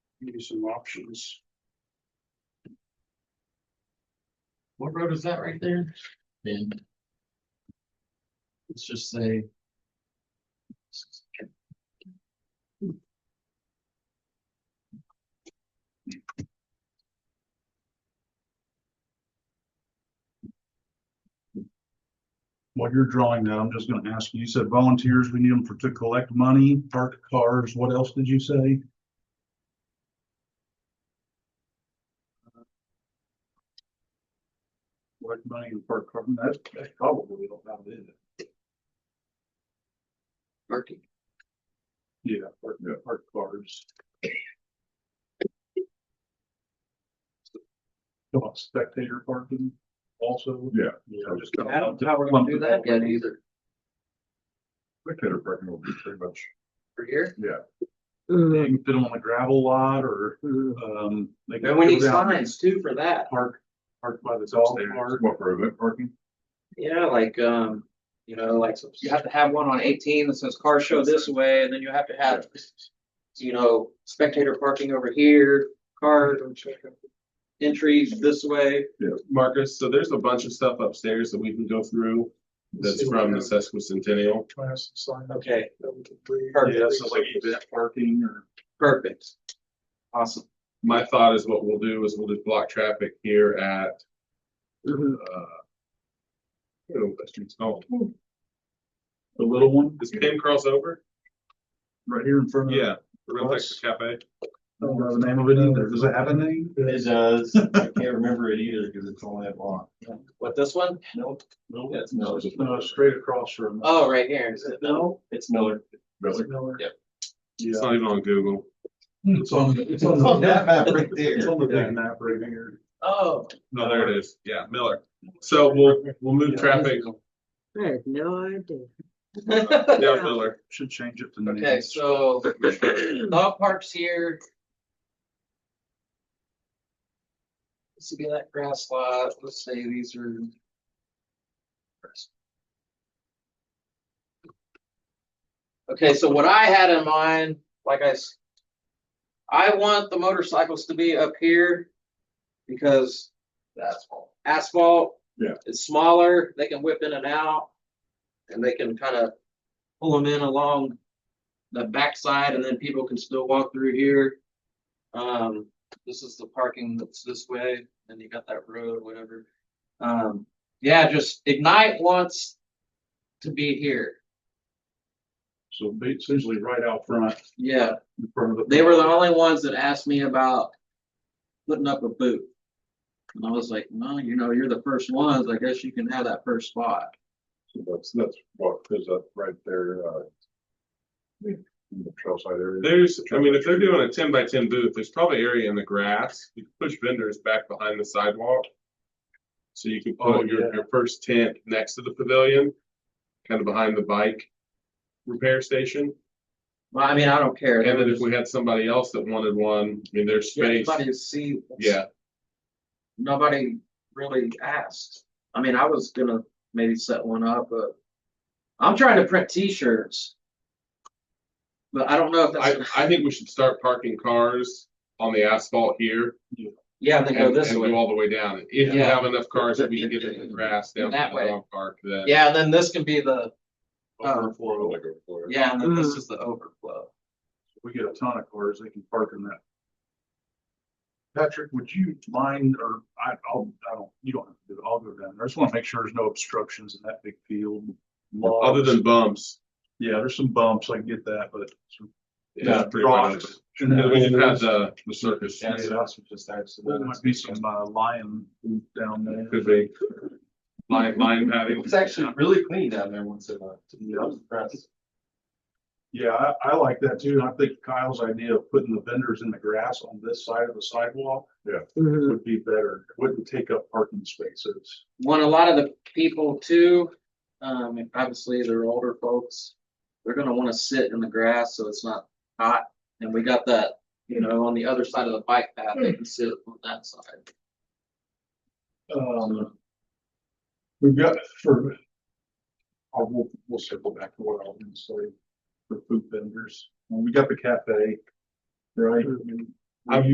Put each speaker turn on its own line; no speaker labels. give you some options. What road is that right there? Then. Let's just say.
What you're drawing now, I'm just gonna ask you, you said volunteers, we need them for, to collect money, park cars, what else did you say? Collect money and park car, that's, that's probably don't have it.
Parking.
Yeah, park, park cars. Come on, spectator parking also?
Yeah.
Yeah, just.
I don't know how we're gonna do that yet either,
Spectator parking will be pretty much,
for here.
yeah,
Mm-hmm.
They can fit them on the gravel lot or, um. they can
And we need
go down
signs too for that,
Park, park by the dog
upstairs,
park.
what for event parking,
yeah, like, um, you know, like, you have to have one on eighteen that says car show this way, and then you have to have. You know, spectator parking over here, car entries this way,
Marcus, so there's a bunch of stuff upstairs that we can go through that's from the sesquicentennial.
Class sign.
okay,
Yeah, so like event parking or.
perfect. Awesome.
My thought is what we'll do is we'll just block traffic here at, uh, I don't know what that street's called.
The little one,
Is Penn Cross over?
right here in front of.
Yeah, the Real Texas Cafe.
I don't know the name of it either. Does it have a name?
It does. I can't remember it either because it's only that long.
What, this one?
Nope.
No,
That's Miller.
no, it's straight across from.
Oh, right here.
No, it's Miller.
really,
Yeah,
It's not even on Google.
it's on, it's on.
It's on that map right
It's
there.
on the big map right here.
Oh.
No, there it is. Yeah, Miller. So we'll, we'll move traffic
I had no idea.
down Miller.
Should change it to.
Okay,
names.
so dog parks here. This would be that grass lot, let's say these are. Okay, so what I had in mind, like I. s- I want the motorcycles to be up here. Because. Asphalt. Asphalt.
Yeah.
Is smaller, they can whip in and out. And they can kind of pull them in along the backside and then people can still walk through here. Um, this is the parking that's this way, and you got that road, whatever. Um, yeah, just Ignite wants to be here.
So ba- essentially right out front,
Yeah,
in front of the.
they were the only ones that asked me about putting up a booth. And I was like, well, you know, you're the first ones, I guess you can have that first spot.
so that's, that's what is up right there, uh. In the trailside area.
There's, I mean, if they're doing a ten by ten booth, there's probably area in the grass. You can push vendors back behind the sidewalk. So you can
Oh,
put your,
yeah.
your first tent next to the pavilion, kind of behind the bike repair station.
Well, I mean, I don't care.
And then if we had somebody else that wanted one, I mean, there's space.
Everybody to see.
Yeah,
nobody really asked. I mean, I was gonna maybe set one up, but I'm trying to print T-shirts. But I don't know if
I,
that's,
I think we should start parking cars on the asphalt here
yeah, and then
and,
go
and
this
go
way.
all the way down. And If you
Yeah.
have enough cars that we can get in the grass down to
That
the
way.
dog park, then.
Yeah, and then this can be the, uh,
Overflow.
Like a floor.
yeah, and then this is the overflow.
we get a ton of cars, they can park in that. Patrick, would you mind, or I, I'll, I don't, you don't have to do it, I'll go down there, I just wanna make sure there's no obstructions in that big field.
Other than bumps.
Yeah, there's some bumps, I can get that, but. some
it's pretty much-
rocks.
And we just had the, the circus.
just
There might be some, uh, lion down there.
Could be. Line, line padding.
It's actually really clean down there once in a while. I was impressed.
Yeah, I, I like that too, and I think Kyle's idea of putting the vendors in the grass on this side of the sidewalk
Mhm.
would be better, It wouldn't take up parking spaces.
Want a lot of the people too, um, and obviously they're older folks. They're gonna wanna sit in the grass, so it's not hot, and we got that, you know, on the other side of the bike path, they can sit on that side.
Um. We've got for. I'll, we'll, we'll circle back to what I was gonna
Mm-hmm.
say for food vendors. When we got the cafe. Right? I've-